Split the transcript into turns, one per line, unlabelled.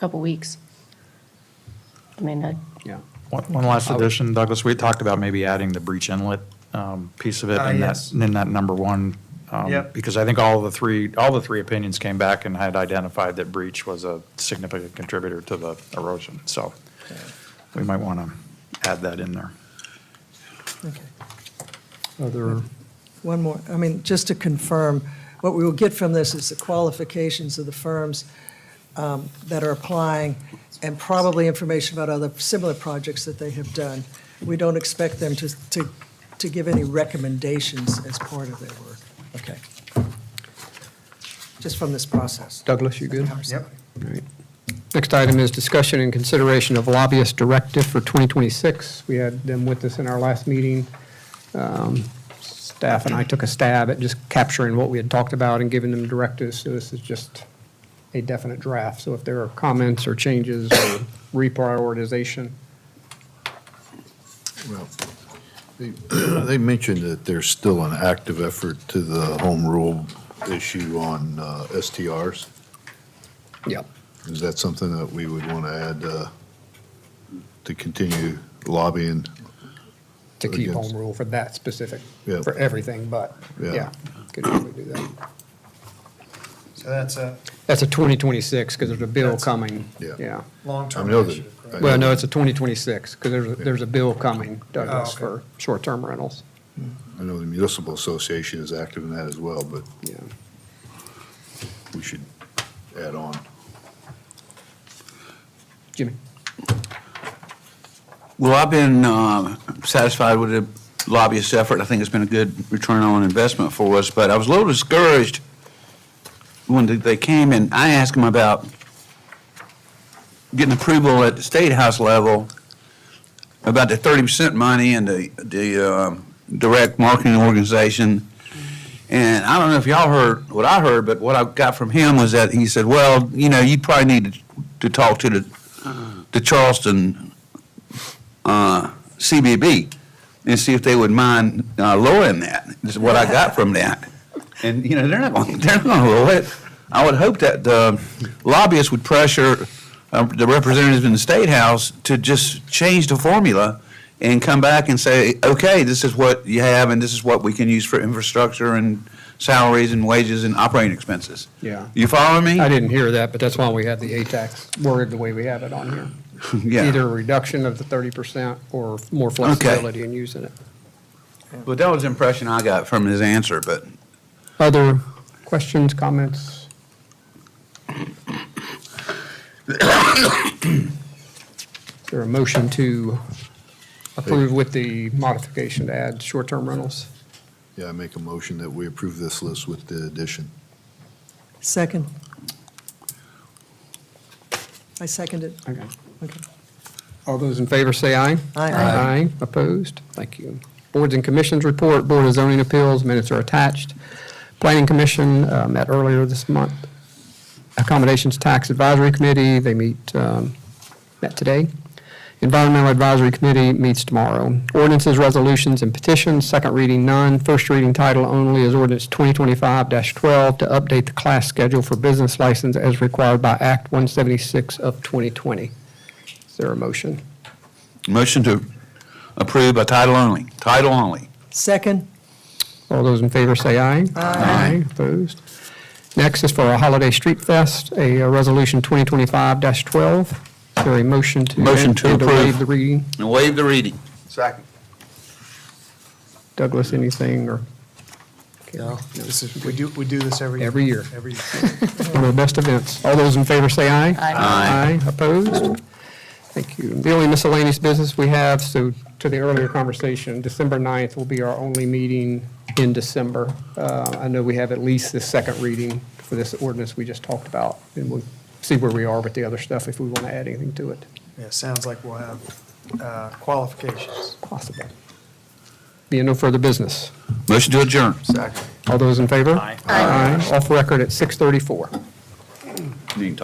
couple weeks. I mean, I,
Yeah.
One one last addition, Douglas, we talked about maybe adding the breach inlet um, piece of it
Ah,
in that,
yes.
in that number one. um,
Yep.
Because I think all the three, all the three opinions came back and had identified that breach was a significant contributor to the erosion. So we might want to add that in there.
Okay.
Other,
One more, I mean, just to confirm, what we will get from this is the qualifications of the firms um, that are applying, and probably information about other similar projects that they have done. We don't expect them to, to, to give any recommendations as part of their work. Okay. Just from this process.
Douglas, you good?
Yep.
All right.
Next item is discussion and consideration of lobbyist directive for 2026. We had them with us in our last meeting. Um, Staff and I took a stab at just capturing what we had talked about and giving them directives, so this is just a definite draft. So if there are comments or changes or reprioritization,
Well, they, they mentioned that there's still an active effort to the home rule issue on uh, STRs.
yeah.
Is that something that we would want to add uh, to continue lobbying?
to keep
Against.
home rule for that specific,
Yeah.
for everything, but,
Yeah.
yeah, could probably do that.
So that's a
That's a 2026, because there's a bill
That's-
coming,
Yeah.
yeah.
I
long-term
know that.
initiative,
I
right?
Well, no,
know that-
it's a 2026, because there's, there's a bill coming, Douglas,
Oh, okay.
for short-term rentals,
I know the municipal association is active in that as well, but
yeah.
we should add on.
Jimmy?
Well, I've been uh, satisfied with the lobbyist effort. I think it's been a good return on investment for us, but I was a little discouraged when they- they came and I asked them about getting approval at the state house level about the 30% money and the, the um, direct marketing organization. And I don't know if y'all heard what I heard, but what I got from him was that he said, well, you know, you probably need to- to talk to the, the Charleston uh, CBB and see if they would mind uh, lowering that. This is what I got from that. And, you know, they're not going, they're not going to lower it. I would hope that the lobbyists would pressure um, the representatives in the State House to just change the formula and come back and say, okay, this is what you have and this is what we can use for infrastructure and salaries and wages and operating expenses.
Yeah.
You following me?
I didn't hear that, but that's why we had the ATAX worded the way we have it on here.
Yeah.
Either a reduction of the 30% or more flexibility in using it.
But that was the impression I got from his answer, but
Other questions, comments? Is there a motion to approve with the modification to add short-term rentals?
Yeah, I make a motion that we approve this list with the addition.
Second. I second it.
Okay.
Okay.
All those in favor say aye.
Aye. Aye.
Aye, opposed? Thank you. Boards and commissions report, Board of Zoning Appeals, minutes are attached. Planning Commission uh, met earlier this month. Accommodations Tax Advisory Committee, they meet, um, met today. Environmental Advisory Committee meets tomorrow. Ordinances, resolutions, and petitions, second reading none. First reading title only is ordinance 2025-12 to update the class schedule for business license as required by Act 176 of 2020. Is there a motion?
Motion to approve by title only, title only.
Second,
All those in favor say aye. Aye. Opposed? Next is for a Holiday Street Fest, a uh, Resolution 2025-12. Is there a motion to?
Motion to
and waive
approve.
the reading?
And waive the reading.
Second.
Douglas, anything, or
No, this is, we do, we do this every.
Every year.
Every year.
one of the best events? All those in favor say aye.
Aye.
Aye. Opposed? Thank you. The only miscellaneous business we have, so to the earlier conversation, December 9th will be our only meeting in December. Uh, I know we have at least the second reading for this ordinance we just talked about, and we'll see where we are with the other stuff if we want to add anything to it,
Yeah, sounds like we'll have uh, qualifications.
possible. Being no further business.
Motion to adjourn.
Second.
All those in favor? Aye. Off record at 6:34.